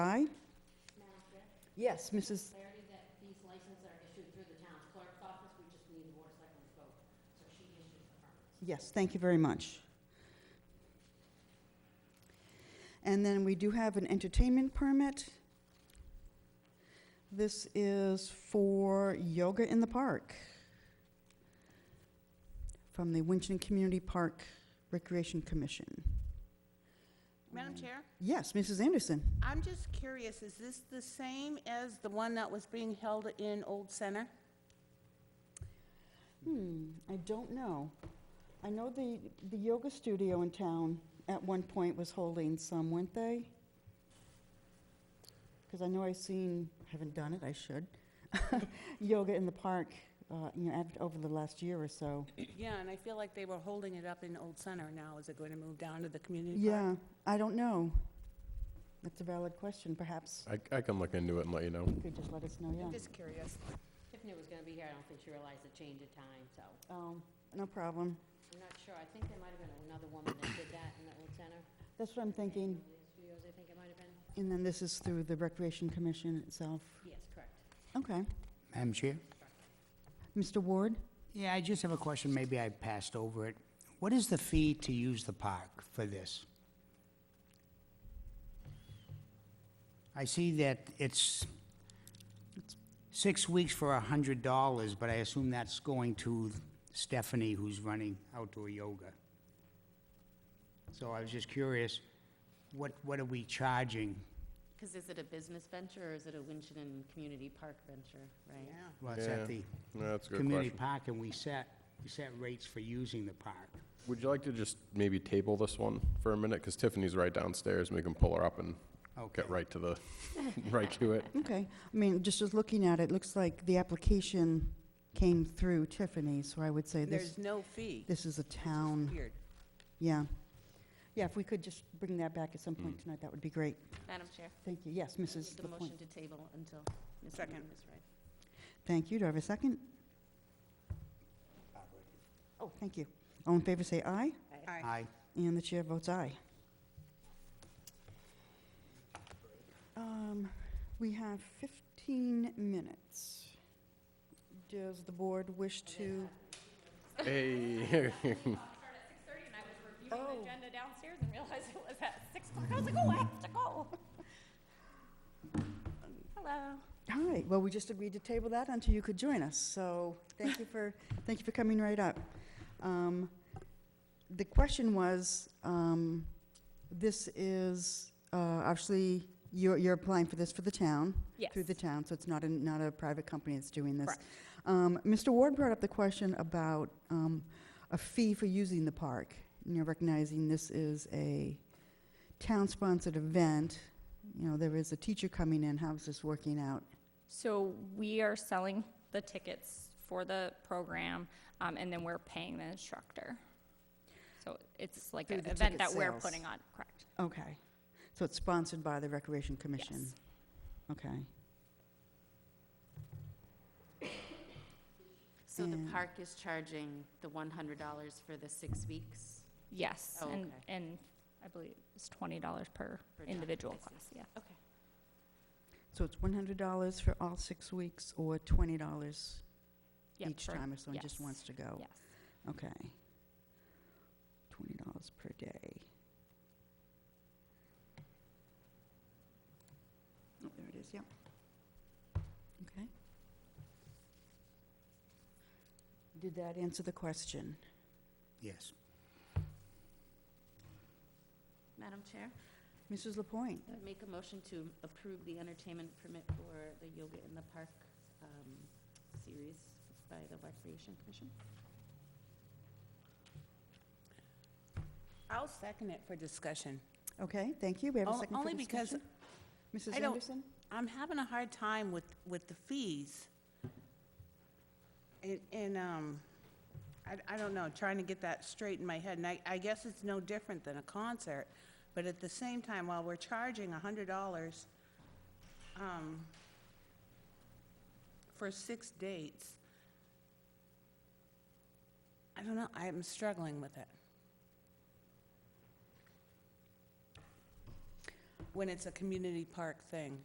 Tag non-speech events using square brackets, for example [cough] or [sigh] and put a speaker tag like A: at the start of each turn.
A: Yes, Mrs.,
B: clarity that these licenses are issued through the town clerk's office, we just need the board of selectmen's vote. So she issues the permits.
C: Yes, thank you very much. And then we do have an entertainment permit. This is for yoga in the park from the Winchton Community Park Recreation Commission.
D: Madam
C: And-
D: Chair,
C: Yes, Mrs. Anderson.
D: I'm just curious, is this the same as the one that was being held in Old Center?
C: Hmm, I don't know. I know the, the yoga studio in town at one point was holding some, weren't they? Because I know I've seen, haven't done it, I should, [laughs] yoga in the park, uh, you know, ad- over the last year or so.
D: Yeah, and I feel like they were holding it up in Old Center now. Is it going to move down to the community park?
C: Yeah, I don't know. That's a valid question, perhaps.
E: I, I can look into it and let you know.
C: You could just let us know, yeah.
D: I'm just curious.
B: Tiffany was gonna be here, I don't think she realized the change of time, so
C: Um, No problem.
B: I'm not sure. I think there might have been another woman that did that in the old center.
C: That's what I'm thinking.
B: Studios, I think it might have been.
C: And then this is through the Recreation Commission itself.
B: Yes, correct.
C: Okay.
F: Madam Chair?
C: Mr. Ward?
F: Yeah, I just have a question, maybe I passed over it. What is the fee to use the park for this? I see that it's six weeks for a hundred dollars, but I assume that's going to Stephanie, who's running outdoor yoga. So I was just curious, what, what are we charging?
G: Because is it a business venture or is it a Winchton and Community Park venture, right?
F: Well, it's at
E: Yeah,
F: the
E: No, that's a good
F: community
E: question.
F: park, and we set, we set rates for using the park.
E: Would you like to just maybe table this one for a minute? Because Tiffany's right downstairs, and we can pull her up and
F: Okay.
E: get right to the, [laughs] right to it.
C: Okay, I mean, just as looking at it, looks like the application came through Tiffany, so I would say this,
D: There's no fee.
C: this is a
D: It's
C: town,
D: weird.
C: yeah. Yeah, if we could just bring that back at some point tonight, that would be great.
G: Madam Chair,
C: Thank you, yes,
G: I make
C: Mrs.
G: the
C: LaPointe.
G: motion to table until Ms.
D: Second.
G: Moon is ready.
C: Thank you, do I have a second? Oh, thank you. All in favor, say aye,
D: Aye.
F: Aye.
C: and the chair votes aye. Um, We have 15 minutes. Does the board wish to?
E: Hey,
H: started at six thirty and I was reviewing
C: Oh.
H: the agenda downstairs and realized it was at six o'clock. I was like, oh, I have to go. Hello.
C: All right, well, we just agreed to table that until you could join us, so thank you for, thank you for coming right up. Um, The question was, um, this is, uh, actually, you're, you're applying for this for the town?
H: Yes.
C: Through the town, so it's not a, not a private company that's doing this?
H: Correct.
C: Um, Mr. Ward brought up the question about um, a fee for using the park, you know, recognizing this is a town-sponsored event, you know, there is a teacher coming in, how's this working out?
H: So we are selling the tickets for the program, um, and then we're paying the instructor. So it's like
C: Through
H: an
C: the ticket
H: event that we're
C: sales.
H: putting on, correct?
C: Okay. So it's sponsored by the Recreation Commission?
H: Yes.
C: Okay.
G: So the
C: And-
G: park is charging the $100 for the six weeks?
H: Yes,
G: Oh,
H: and,
G: okay.
H: and I believe it's twenty dollars per
G: Per child,
H: individual
G: I see.
H: class, yeah.
G: Okay.
C: So it's $100 for all six weeks or $20
H: Yep,
C: each
H: for-
C: time if someone just
H: yes.
C: wants to go?
H: Yes.
C: Okay. $20 per day. Oh, there it is, yep. Okay. Did that answer the question?
F: Yes.
G: Madam Chair,
C: Mrs. Lapointe?
G: I make a motion to approve the entertainment permit for the Yoga in the Park um, series by the Recreation Commission.
D: I'll second it for discussion.
C: Okay, thank you. We have a
D: On-
C: second for
D: only because
C: discussion? Mrs.
D: I don't-
C: Anderson?
D: I'm having a hard time with, with the fees. And, and, um, I, I don't know, trying to get that straight in my head, and I, I guess it's no different than a concert, but at the same time, while we're charging a hundred dollars, um, for six dates, I don't know, I'm struggling with it. When it's a community park thing.